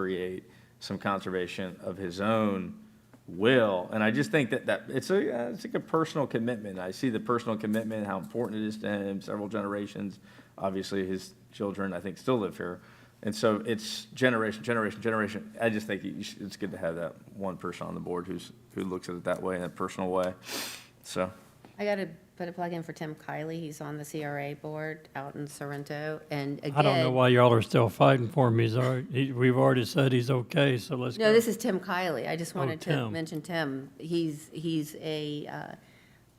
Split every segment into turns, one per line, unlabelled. create some conservation of his own will. And I just think that, that, it's a, uh, it's like a personal commitment. I see the personal commitment, how important it is to him, several generations. Obviously, his children, I think, still live here. And so it's generation, generation, generation. I just think you should- it's good to have that one person on the board who's, who looks at it that way, in a personal way. So,
I gotta put a plug in for Tim Kiley. He's on the CRA board out in Sorrento, and again.
I don't know why y'all are still fighting for him. He's already, he, we've already said he's okay, so let's go.
No, this is Tim Kiley. I just wanted to
Tim.
mention Tim. He's, he's a,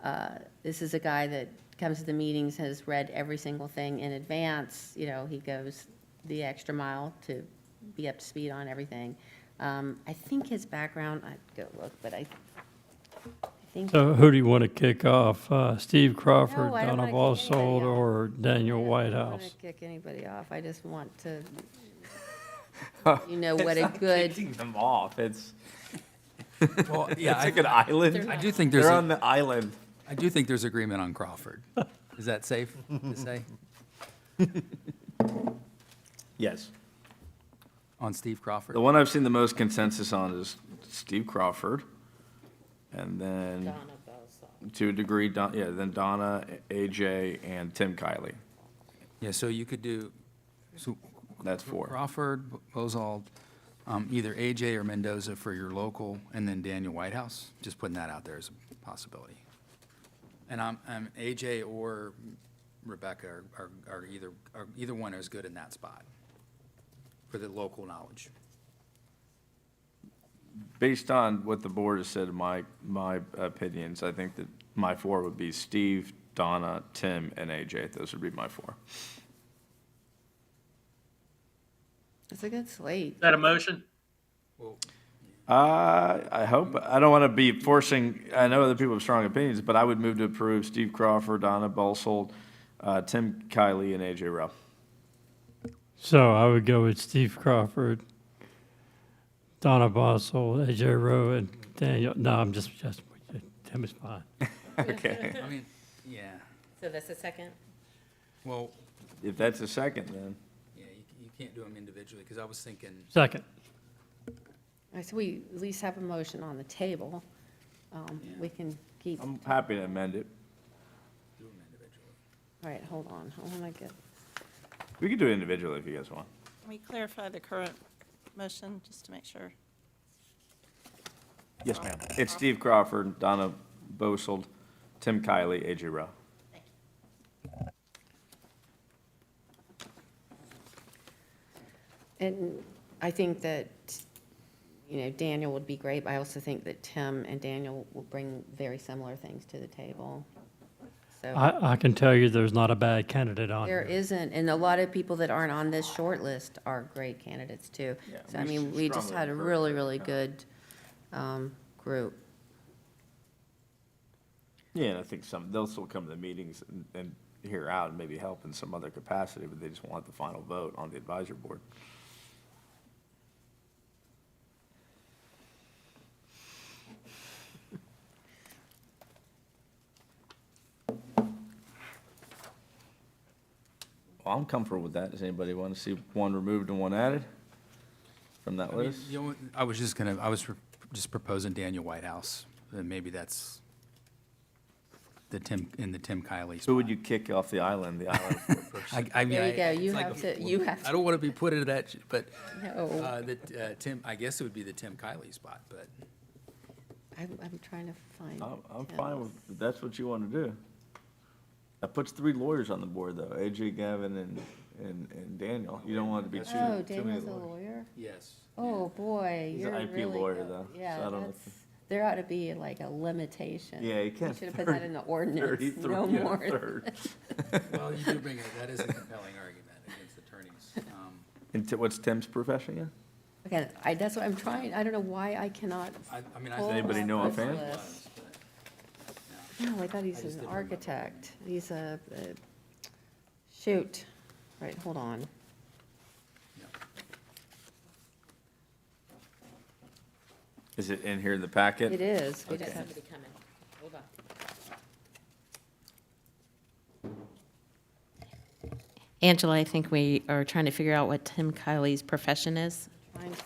uh, uh, this is a guy that comes to the meetings, has read every single thing in advance. You know, he goes the extra mile to be up to speed on everything. Um, I think his background, I'd go look, but I, I think.
So who do you want to kick off? Uh, Steve Crawford,
No, I don't
Donna
wanna kick anybody
Bossold,
off.
or Daniel
I don't want
Whitehouse?
to kick anybody off. I just want to, you know, what
It's
a
not
good,
Kicking them off, it's,
Well, yeah,
it's
I,
like an island.
I do think there's,
They're on
a-
the island.
I do think there's agreement on Crawford. Is that safe to say?
Yes.
On Steve Crawford?
The one I've seen the most consensus on is Steve Crawford. And then, to a degree, Don, yeah, then Donna, AJ, and Tim Kiley.
Yeah, so you could do, so
That's four.
Crawford, Bozald, um, either AJ or Mendoza for your local, and then Daniel Whitehouse. Just putting that out there as a possibility. And I'm, I'm AJ or Rebecca are, are- are either, are either one is good in that spot for the local knowledge.
Based on what the board has said, my, my opinions, I think that my four would be Steve, Donna, Tim, and AJ. Those would be my four.
it's a good slate.
Is that a motion?
Uh, I hope, I don't want to be forcing, I know other people have strong opinions, but I would move to approve Steve Crawford, Donna Bolsold, uh, Tim Kiley, and AJ Rao.
So I would go with Steve Crawford, Donna Bossold, AJ Rowe, and Daniel, no, I'm just, just, Tim is fine.
Okay.
I mean, yeah,
So that's the second?
well,
If that's a second, then.
yeah, you, you can't do them individually, because I was thinking
Second,
All right, so we at least have a motion on the table. Um, We can keep, all
I'm happy to amend it.
do them individually.
right, hold on, I want to get,
We could do it individually if you guys want.
Can we clarify the current motion, just to make sure?
Yes, ma'am. It's Steve Crawford, Donna Bosold, Tim Kiley, AJ Rowe.
and I think that, you know, Daniel would be great, but I also think that Tim and Daniel will bring very similar things to the table. So
I, I can tell you there's not a bad candidate on
there
here.
isn't, and a lot of people that aren't on this short list are great candidates too.
Yeah,
So I
we
mean,
should
we just
strongly
had a
encourage
really,
that.
really good um, group.
Yeah, and I think some, they'll still come to the meetings and, and hear out and maybe help in some other capacity, but they just want the final vote on the advisory board. Well, I'm comfortable with that. Does anybody want to see one removed and one added from that
I mean,
list?
you know, I was just gonna, I was re- just proposing Daniel Whitehouse, and maybe that's the Tim, in the Tim Kiley
Who
spot.
would you kick off the island? The island four person.
I, I mean,
There you
I-
go,
it's
you
like
have
a-
to, you have Oh.
I
to
don't want to be put into that, sh- but,
know.
uh, the, uh, Tim, I guess it would be the Tim Kiley spot, but,
I'm, I'm trying to find.
I'm, I'm
Tim's.
fine with, if that's what you want to do. That puts three lawyers on the board, though, AJ, Gavin, and, and, and Daniel. You don't want it to be
Oh,
too, too many
Daniel's a
lawyers.
lawyer?
yes.
Oh, boy.
He's an
you're
IP
really
lawyer,
good.
though, so I
Yeah,
don't know
that's,
if-
there ought to be like a limitation.
Yeah, you
We
can't
should have put that in the ordinance,
Thirty-three
no
and a
more.
third.
Well, you do bring, a- that is a compelling argument against attorneys. Um,
And Ti- what's Tim's profession again?
Okay, I, that's what I'm trying, I don't know why I cannot.
I, I mean, I.
pull
anybody
up
know
this
offhand?
list.
was, but, yeah.
No, I thought he's
just
an
didn't remember.
architect. He's a, a- shoot, right, hold on.
Is it in here in the packet?
It is. We just
Okay.
have to-
Angela, I think we are trying to figure out what Tim Kiley's profession is.